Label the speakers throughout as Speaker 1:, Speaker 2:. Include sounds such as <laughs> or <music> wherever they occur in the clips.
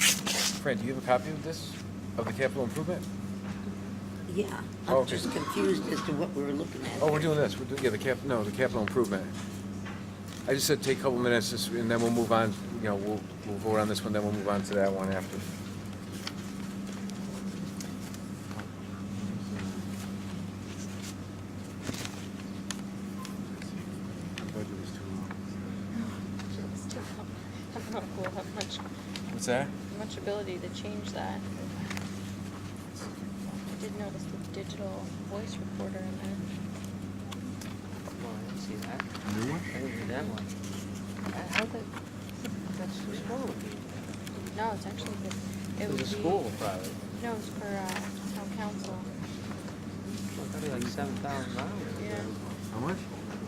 Speaker 1: Fran, do you have a copy of this, of the capital improvement?
Speaker 2: Yeah,
Speaker 1: Oh,
Speaker 2: I'm
Speaker 1: okay.
Speaker 2: just confused as to what we're looking at.
Speaker 1: Oh, we're doing this, we're doing, yeah, the cap, no, the capital improvement. I just said take a couple minutes, just- and then we'll move on, you know, we'll, we'll vote on this one, then we'll move on to that one after.
Speaker 3: I don't know if we'll have much,
Speaker 1: What's that?
Speaker 3: much ability to change that. I did notice the digital voice recorder in there.
Speaker 4: Well, I didn't see that.
Speaker 5: New one?
Speaker 4: I didn't see that
Speaker 3: Uh,
Speaker 4: one.
Speaker 3: How the,
Speaker 4: That's the school would be.
Speaker 3: no, it's actually the, it
Speaker 4: It
Speaker 3: would
Speaker 4: was
Speaker 3: be.
Speaker 4: a school, probably.
Speaker 3: No, it's for, uh, town council.
Speaker 4: Well, That'd be like seven thousand dollars.
Speaker 3: Mm-hmm. Yeah.
Speaker 5: How much?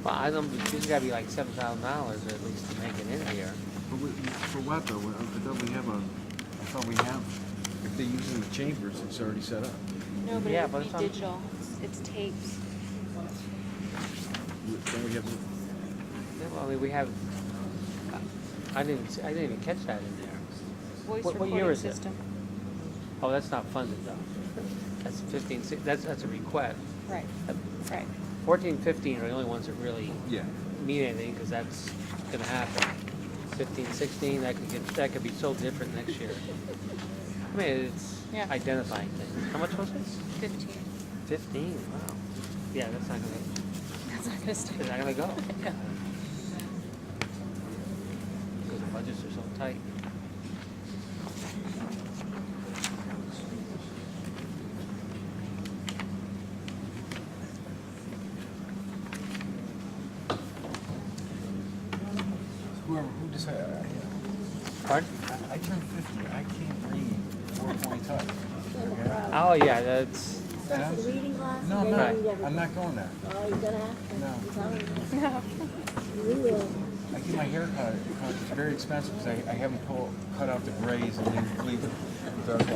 Speaker 4: Well, I don't, it's gotta be like seven thousand dollars at least to make it in here.
Speaker 5: For wh- for what though? I thought we have a, I thought we have, if they're using the chambers, it's already set up.
Speaker 3: No, but
Speaker 4: Yeah,
Speaker 3: it
Speaker 4: but
Speaker 3: would
Speaker 4: it's
Speaker 3: be
Speaker 4: on-
Speaker 3: digital. It's- It's tapes.
Speaker 5: We- Don't we have, the-
Speaker 4: Yeah, Well, I mean, we have, I didn't, see- I didn't even catch that in there.
Speaker 3: Voice
Speaker 4: What- what year
Speaker 3: recording
Speaker 4: is it?
Speaker 3: system.
Speaker 4: Oh, that's not funded though. That's fifteen, si- that's, that's a request.
Speaker 3: Right,
Speaker 4: Uh,
Speaker 3: right.
Speaker 4: Fourteen, fifteen are the only ones that really
Speaker 5: yeah.
Speaker 4: mean anything, cause that's gonna happen. Fifteen, sixteen, that could get, that could be so different next year. I mean, it's
Speaker 3: Yeah.
Speaker 4: identifying things. How much was it?
Speaker 3: Fifteen. <laughs>
Speaker 4: Fifteen, wow. Yeah, that's not gonna,
Speaker 3: That's not gonna stick.
Speaker 4: it's not gonna go.
Speaker 3: Yeah.
Speaker 4: <laughs> Because the budgets are so tight.
Speaker 5: Whoever, who decided?
Speaker 4: Pardon?
Speaker 5: I turned fifty, I can't read four point touch.
Speaker 4: Oh, yeah, that's,
Speaker 2: Start the reading glasses,
Speaker 5: No, I'm
Speaker 2: they
Speaker 4: not.
Speaker 2: read everything.
Speaker 5: not going there.
Speaker 2: Oh, you're gonna have to.
Speaker 5: No.
Speaker 2: I'm telling you. We will.
Speaker 5: I get my hair cut, it's very expensive, cause I, I haven't pull, cut out the grays and then leave it dark
Speaker 2: And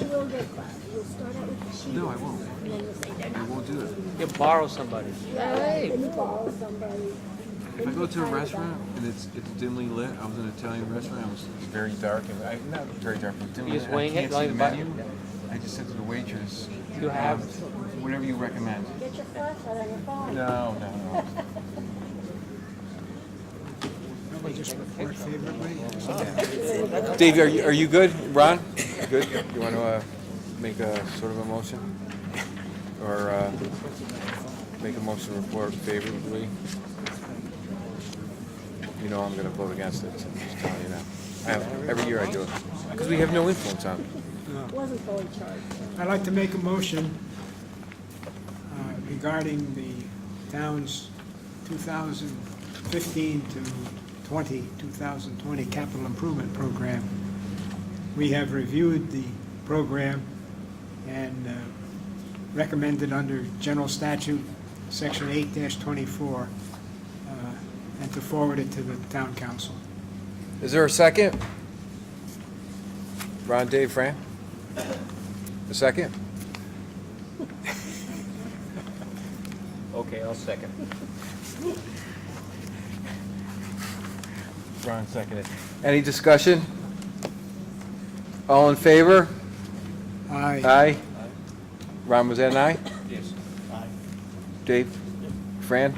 Speaker 2: you will get glasses. You'll start out with the sheet.
Speaker 5: No, I won't.
Speaker 2: And then you'll say they're
Speaker 5: I
Speaker 2: not.
Speaker 5: won't do it.
Speaker 4: you borrow somebody.
Speaker 2: Right. Then you borrow somebody.
Speaker 5: If I
Speaker 2: Then
Speaker 5: go
Speaker 2: you
Speaker 5: to a
Speaker 2: find out.
Speaker 5: restaurant and it's, it's dimly lit, I was in an Italian restaurant, it was very dark, and I, not very dark, but dimly
Speaker 4: You
Speaker 5: lit.
Speaker 4: just wing
Speaker 5: I
Speaker 4: it,
Speaker 5: can't
Speaker 4: like
Speaker 5: see the
Speaker 4: the button?
Speaker 5: menu. I just said to the waitress,
Speaker 4: You have,
Speaker 5: whatever you recommend.
Speaker 2: Get your flashlight on your phone.
Speaker 5: No, no, no.
Speaker 1: Dave, are you, are you good? Ron? Good? You want to, uh, make a sort of a motion? Or, uh, make a motion to report favorably? You know I'm gonna vote against it, so I'm just telling you now. I have- Every year I do it, because we have no influence on it.
Speaker 2: It wasn't fully charged.
Speaker 6: I'd like to make a motion uh, regarding the town's 2015 to 20, 2020 capital improvement program. We have reviewed the program and uh, recommended under General Statute, Section 8-24, uh, and to forward it to the town council.
Speaker 1: Is there a second? Ron, Dave, Fran? A second?
Speaker 4: okay, I'll second.
Speaker 1: Ron seconded. Any discussion? All in favor?
Speaker 6: Aye.
Speaker 1: Aye. Ron, was that an aye? Yes. Dave? Fran?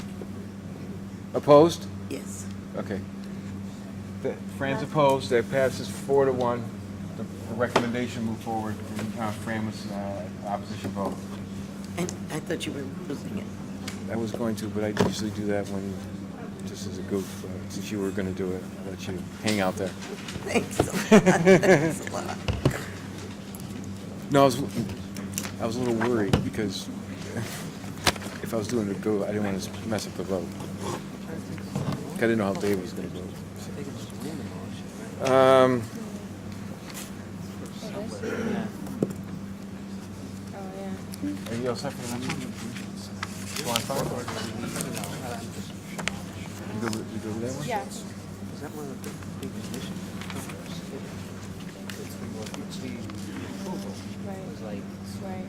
Speaker 1: Opposed?
Speaker 2: Yes.
Speaker 1: Okay. The- Fran's opposed, that passes four to one. The the recommendation moved forward, and uh, Fran was uh, opposition vote.
Speaker 2: And I thought you were losing it. <laughs>
Speaker 1: I was going to, but I usually do that when, just as a goof, uh, since you were gonna do it, I'll let you hang out there.
Speaker 2: Thanks a
Speaker 1: <laughs>
Speaker 2: lot. Thanks a lot.
Speaker 1: No, I was, I was a little worried because <laughs> if I was doing a go, I didn't want to mess up the vote. 'Cause I didn't know how Dave was gonna vote.
Speaker 4: I think it's a winning motion, right?
Speaker 1: Um,
Speaker 4: Yeah.
Speaker 3: Oh, yeah.
Speaker 1: are you all set for the next one? You want five? You good with, you good with that one?
Speaker 3: Yeah.
Speaker 4: Is that one of the big conditions? It's the approval. It was like,
Speaker 3: Right.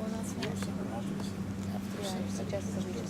Speaker 3: Well, that's not. Yeah, I suggest that we do uh,